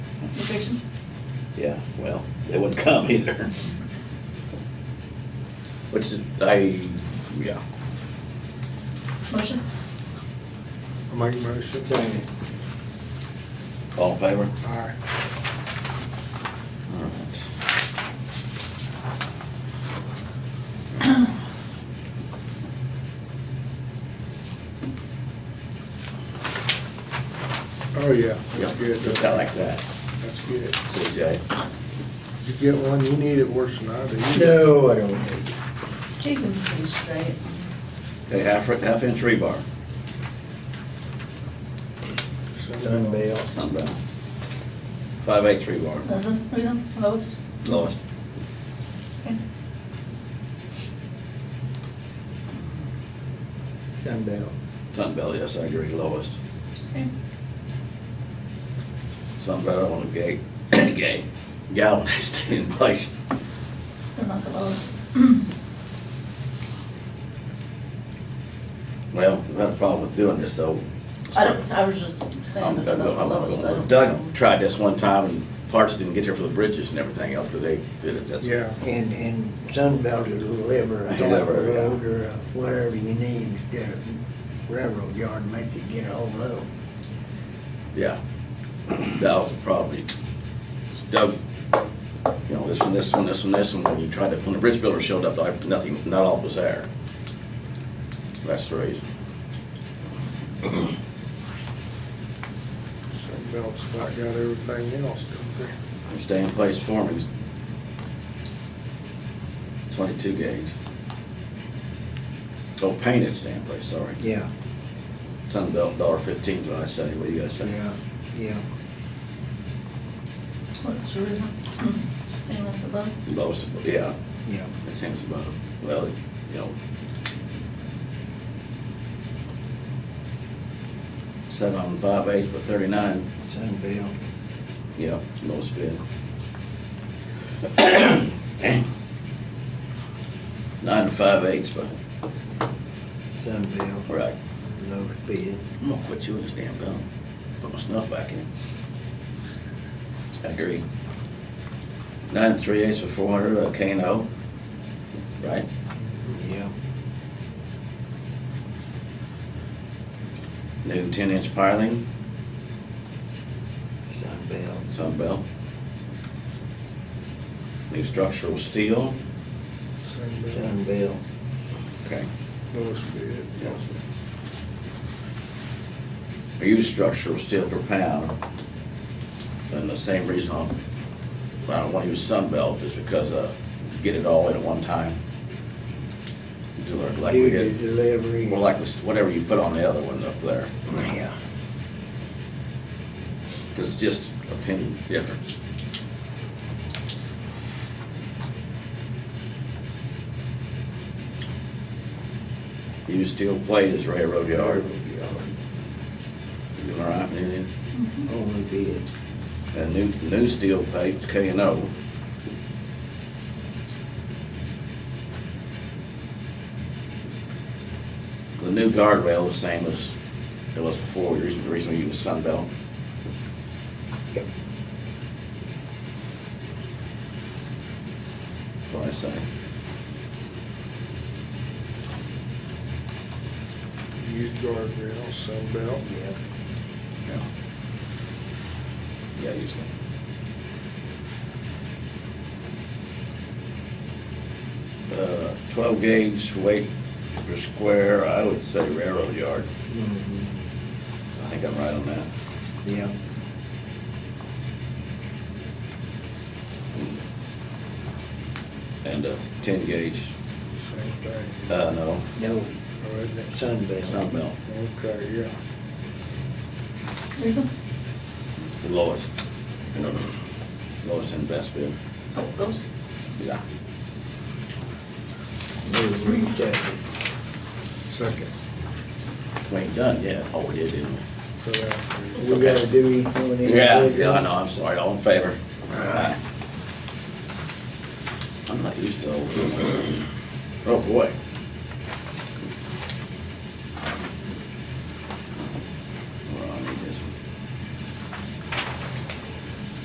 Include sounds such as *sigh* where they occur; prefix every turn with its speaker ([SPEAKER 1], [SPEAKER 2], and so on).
[SPEAKER 1] Eviction?
[SPEAKER 2] Yeah, well, they wouldn't come either. Which is, I, yeah.
[SPEAKER 1] Motion?
[SPEAKER 3] I make a motion.
[SPEAKER 2] All in favor?
[SPEAKER 3] Aye.
[SPEAKER 2] All right.
[SPEAKER 3] Oh, yeah, that's
[SPEAKER 2] Yep,
[SPEAKER 3] good.
[SPEAKER 2] just kinda like that,
[SPEAKER 3] That's good.
[SPEAKER 2] CJ.
[SPEAKER 3] Did you get one? You need it worse than I do.
[SPEAKER 4] No, I don't need it.
[SPEAKER 1] Keep them straight.
[SPEAKER 2] Okay, half, half inch rebar,
[SPEAKER 4] Done bail.
[SPEAKER 2] sunbrown. Five eighths rebar,
[SPEAKER 1] Leslie, Rita, Lois?
[SPEAKER 2] lowest.
[SPEAKER 1] Okay.
[SPEAKER 4] Done bail.
[SPEAKER 2] Sunbelt, yes, I agree, lowest.
[SPEAKER 1] Okay.
[SPEAKER 2] Sunbelt, I want to *clears throat* gay, gay, galvanized *laughs* in place.
[SPEAKER 1] They're not the *clears throat* lowest.
[SPEAKER 2] Well, we've had a problem with doing this though.
[SPEAKER 1] I don't, I was just saying that they're not the lowest. I don't-
[SPEAKER 2] Doug tried this one time and parts didn't get there for the bridges and everything else because they did it. That's-
[SPEAKER 3] Yeah,
[SPEAKER 4] And, and Sunbelt will deliver a half
[SPEAKER 2] Deliver,
[SPEAKER 4] a
[SPEAKER 2] yeah.
[SPEAKER 4] load or a whatever you need, get a railroad yard, and make you get a whole load.
[SPEAKER 2] Yeah. That was probably, Doug, you know, this one, this one, this one, this one, when you tried to, when the bridge builder showed up, like, nothing, not all was there. That's the reason.
[SPEAKER 3] some belts about got everything else, don't they?
[SPEAKER 2] I'm staying in place forming. Twenty-two gauge. Oh, painted stay in place, sorry.
[SPEAKER 4] Yeah,
[SPEAKER 2] Sunbelt, dollar fifteen is what I say, what do you guys say?
[SPEAKER 4] yeah, yeah.
[SPEAKER 1] What's your reason? Same as above?
[SPEAKER 2] Lowest, yeah,
[SPEAKER 4] Yeah,
[SPEAKER 2] it seems about, well, you know. Seven on five eighths, but thirty-nine,
[SPEAKER 4] Sunbelt.
[SPEAKER 2] yeah, lowest bid. *coughs* Nine to five eighths, but,
[SPEAKER 4] Sunbelt,
[SPEAKER 2] right.
[SPEAKER 4] lowest bid.
[SPEAKER 2] I'm gonna quit chewing this damn gum. Put my snuff back in. I agree. Nine and three eighths for four hundred, uh, Kano, right?
[SPEAKER 4] Yeah,
[SPEAKER 2] New ten inch piling,
[SPEAKER 4] Sunbelt,
[SPEAKER 2] Sunbelt. New structural steel.
[SPEAKER 3] Some belt,
[SPEAKER 4] Sunbelt,
[SPEAKER 2] Okay.
[SPEAKER 3] lowest bid.
[SPEAKER 2] I use structural steel per pound. And the same reason I'm- I don't want to use Sunbelt is because, uh, get it all in at one time. Do it like we
[SPEAKER 4] due
[SPEAKER 2] did.
[SPEAKER 4] to delivery.
[SPEAKER 2] More like was- whatever you put on the other one up there,
[SPEAKER 4] Yeah,
[SPEAKER 2] because it's just opinion difference. Use steel plate as railroad yard,
[SPEAKER 4] railroad yard,
[SPEAKER 2] you all right, Indian?
[SPEAKER 4] only bid.
[SPEAKER 2] And new, new steel plate, K and O. The new guardrail is same as it was before, the reason, the reason we use Sunbelt.
[SPEAKER 4] Yep.
[SPEAKER 2] What I say.
[SPEAKER 3] Used guardrail, some belt.
[SPEAKER 4] Yeah,
[SPEAKER 2] Yeah. Yeah, usually. Uh, twelve gauge weight per square, I would say railroad yard.
[SPEAKER 4] mhm,
[SPEAKER 2] I think I'm right on that.
[SPEAKER 4] yeah,
[SPEAKER 2] And uh, ten gauge,
[SPEAKER 3] Same thing.
[SPEAKER 2] uh, no,
[SPEAKER 4] no,
[SPEAKER 3] Oh, isn't it?
[SPEAKER 4] Sunbelt,
[SPEAKER 2] Sunbelt,
[SPEAKER 3] Okay, yeah.
[SPEAKER 1] Reason?
[SPEAKER 2] the lowest. Lowest and best bid.
[SPEAKER 1] Oh, those?
[SPEAKER 2] Yeah.
[SPEAKER 4] move rejected.
[SPEAKER 3] Second.
[SPEAKER 2] We ain't done yet. Oh, we did, didn't we?
[SPEAKER 3] for that.
[SPEAKER 4] We gotta do each one individually.
[SPEAKER 2] Yeah, yeah, I know, I'm sorry, all in favor? Aye. I'm not used to old ones. Oh, boy.